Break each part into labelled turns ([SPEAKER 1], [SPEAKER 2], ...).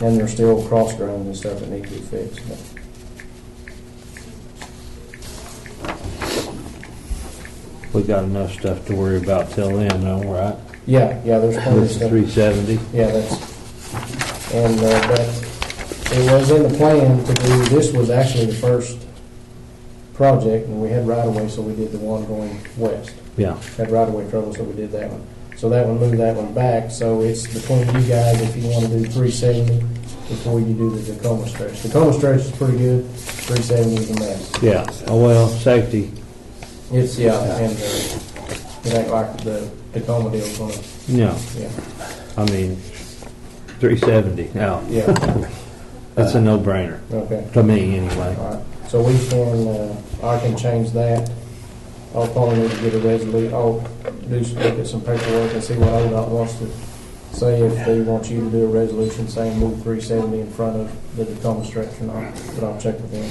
[SPEAKER 1] And there's still cross drains and stuff that need to be fixed, but.
[SPEAKER 2] We got enough stuff to worry about till then, though, right?
[SPEAKER 1] Yeah, yeah, there's plenty of
[SPEAKER 2] With the
[SPEAKER 1] stuff.
[SPEAKER 2] three seventy,
[SPEAKER 1] Yeah, that's, and, uh, that, it was in the plan to do, this was actually the first project, and we had right of way, so we did the one going west.
[SPEAKER 2] yeah.
[SPEAKER 1] Had right of way trouble, so we did that one. So that one moved that one back, so it's between you guys if you wanna do three seventy before you do the Tacoma stretch. Tacoma stretch is pretty good, three seventy is a mess.
[SPEAKER 2] Yeah, oh, well, safety,
[SPEAKER 1] It's, yeah, and, uh, it ain't like the Tacoma deal's gonna,
[SPEAKER 2] no,
[SPEAKER 1] yeah,
[SPEAKER 2] I mean, three seventy, no,
[SPEAKER 1] yeah,
[SPEAKER 2] that's a no-brainer,
[SPEAKER 1] okay.
[SPEAKER 2] to me, anyway.
[SPEAKER 1] All right, so we can, uh, I can change that. I'll probably need to get a resolution, I'll do, some- look at some paperwork and see what ODOT wants to say, if they want you to do a resolution saying move three seventy in front of the Tacoma stretch or not, but I'll check with them.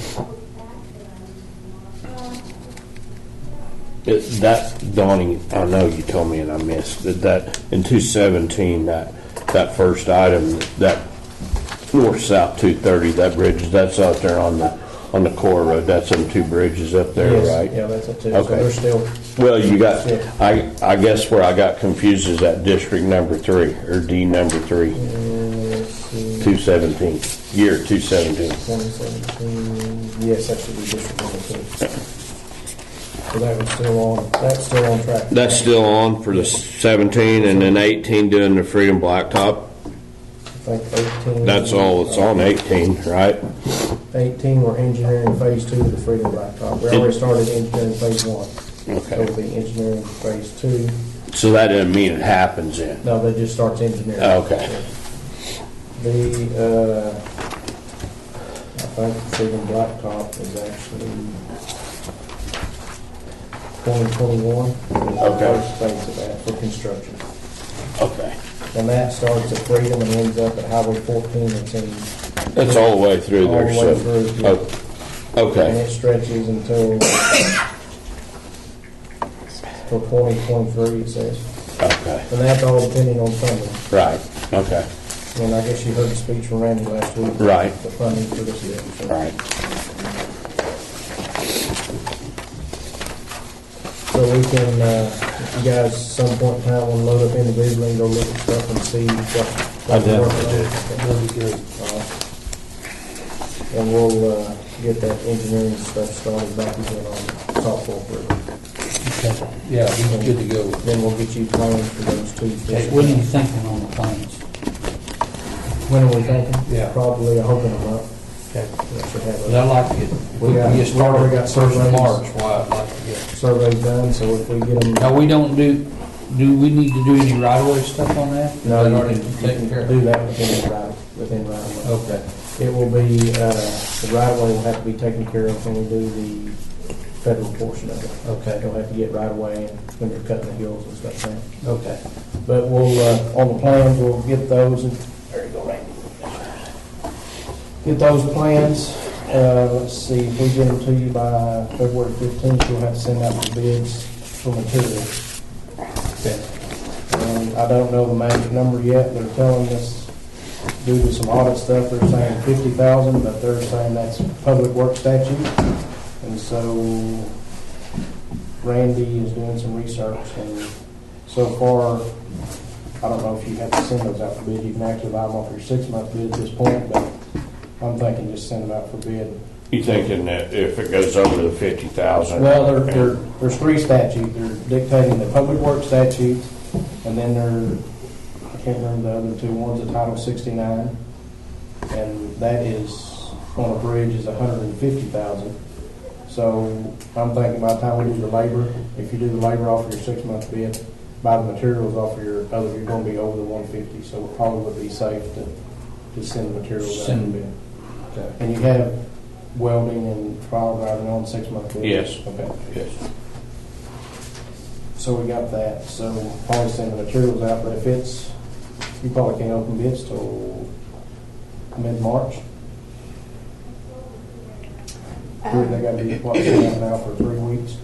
[SPEAKER 3] It- That, Donnie, I know you told me and I missed, that that, in two seventeen, that, that first item, that north-south two thirty, that bridge, that's out there on the, on the core road, that's them two bridges up there,
[SPEAKER 1] Yes,
[SPEAKER 3] right?
[SPEAKER 1] Yeah, that's it too, so
[SPEAKER 3] Okay.
[SPEAKER 1] they're still,
[SPEAKER 3] Well, you got,
[SPEAKER 1] Yeah.
[SPEAKER 3] I, I guess where I got confused is that district number three, or D number three,
[SPEAKER 1] uh, let's see,
[SPEAKER 3] two seventeen, year two seventeen.
[SPEAKER 1] twenty seventeen, yes, that should be district number two. So that was still on, that's still on track.
[SPEAKER 3] That's still on for the seventeen and then eighteen doing the Freedom Blacktop,
[SPEAKER 1] I think eighteen.
[SPEAKER 3] that's all that's on eighteen, right?
[SPEAKER 1] 18, we're engineering phase two of the Freedom Blacktop. We already started engineering phase one. So
[SPEAKER 3] Okay.
[SPEAKER 1] it'll be engineering phase two.
[SPEAKER 3] So that doesn't mean it happens then?
[SPEAKER 1] No, that just starts engineering.
[SPEAKER 3] Okay.
[SPEAKER 1] The, uh, I think Freedom Blacktop is actually 2021. is the
[SPEAKER 3] Okay.
[SPEAKER 1] First phase of that for construction.
[SPEAKER 3] Okay.
[SPEAKER 1] And that starts at Freedom and ends up at Highway 14. It's in,
[SPEAKER 3] That's all the way through
[SPEAKER 1] All
[SPEAKER 3] there,
[SPEAKER 1] the
[SPEAKER 3] so.
[SPEAKER 1] way through, yeah.
[SPEAKER 3] oh,
[SPEAKER 1] and
[SPEAKER 3] Okay,
[SPEAKER 1] it stretches until, till 2023, it says.
[SPEAKER 3] okay,
[SPEAKER 1] And that's all depending on funding.
[SPEAKER 3] right, okay,
[SPEAKER 1] And I guess you heard the speech from Randy last week.
[SPEAKER 3] Right.
[SPEAKER 1] The funding for this year. so.
[SPEAKER 3] right.
[SPEAKER 1] So we can, uh, if you guys some point in time will load up individually and go look at stuff and see what.
[SPEAKER 2] I
[SPEAKER 1] what we're working
[SPEAKER 2] definitely
[SPEAKER 1] on. Uh, And we'll uh, get that engineering stuff started back again on softball for,
[SPEAKER 4] Yeah, he's good to go.
[SPEAKER 1] then we'll get you plans for those two.
[SPEAKER 5] Okay, What are you thinking on the plans?
[SPEAKER 1] When are we thinking?
[SPEAKER 4] Yeah.
[SPEAKER 1] Probably, I hope in a month.
[SPEAKER 4] Okay.
[SPEAKER 1] we should have
[SPEAKER 4] But
[SPEAKER 1] a
[SPEAKER 4] I like to get,
[SPEAKER 1] We
[SPEAKER 4] we
[SPEAKER 1] got- we
[SPEAKER 4] get started,
[SPEAKER 1] got
[SPEAKER 4] first
[SPEAKER 1] some
[SPEAKER 4] of
[SPEAKER 1] things.
[SPEAKER 4] March, why I'd like to get.
[SPEAKER 1] survey done, so if we get them.
[SPEAKER 4] Now, we don't do, do we need to do any right-of-way stuff on that?
[SPEAKER 1] No,
[SPEAKER 4] Is that
[SPEAKER 1] you
[SPEAKER 4] already
[SPEAKER 1] can, you
[SPEAKER 4] taken care
[SPEAKER 1] can do
[SPEAKER 4] of?
[SPEAKER 1] that within the right, within right of way.
[SPEAKER 4] Okay,
[SPEAKER 1] It will be, uh, the right of way will have to be taken care of when we do the federal portion of it.
[SPEAKER 4] okay,
[SPEAKER 1] You'll have to get right of way and when you're cutting the hills and stuff like that.
[SPEAKER 4] okay.
[SPEAKER 1] But we'll, uh, on the plans, we'll get those and. There you go, Randy. Get those plans, uh, let's see, if we get them to you by February fifteenth, you'll have to send out the bids for materials.
[SPEAKER 4] Okay.
[SPEAKER 1] Um, I don't know the magic number yet, they're telling us, due to some audit stuff, they're saying fifty thousand, but they're saying that's public work statute. And so Randy is doing some research, and so far, I don't know if you have to send those out for bid, you can actually buy them off your six-month bid at this point, but I'm thinking just send them out for bid.
[SPEAKER 3] You thinking that if it goes over the fifty thousand?
[SPEAKER 1] Well, there, there, there's three statutes, they're dictating the public work statute, and then there, I can't remember the other two, one's a Title sixty-nine, and that is, on a bridge is a hundred and fifty thousand. So, I'm thinking by the time we do the labor, if you do the labor off of your six-month bid, buy the materials off of your other, you're gonna be over the one fifty, so it probably would be safe to, to send the materials out to
[SPEAKER 4] Send-
[SPEAKER 1] bid.
[SPEAKER 4] okay.
[SPEAKER 1] And you have welding and trial driving on six-month bid?
[SPEAKER 3] Yes.
[SPEAKER 1] Okay.
[SPEAKER 3] Yes.
[SPEAKER 1] So we got that, so we'll probably send the materials out, but if it's, you probably can't open bids till mid-March. Three- They gotta be, what, sitting out now for three weeks?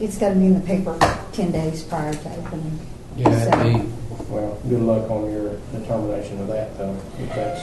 [SPEAKER 6] It's got to be in the paper 10 days prior to opening.
[SPEAKER 4] Yeah,
[SPEAKER 6] So-
[SPEAKER 4] that'd be.
[SPEAKER 1] Well, good luck on your determination of that, though, if that's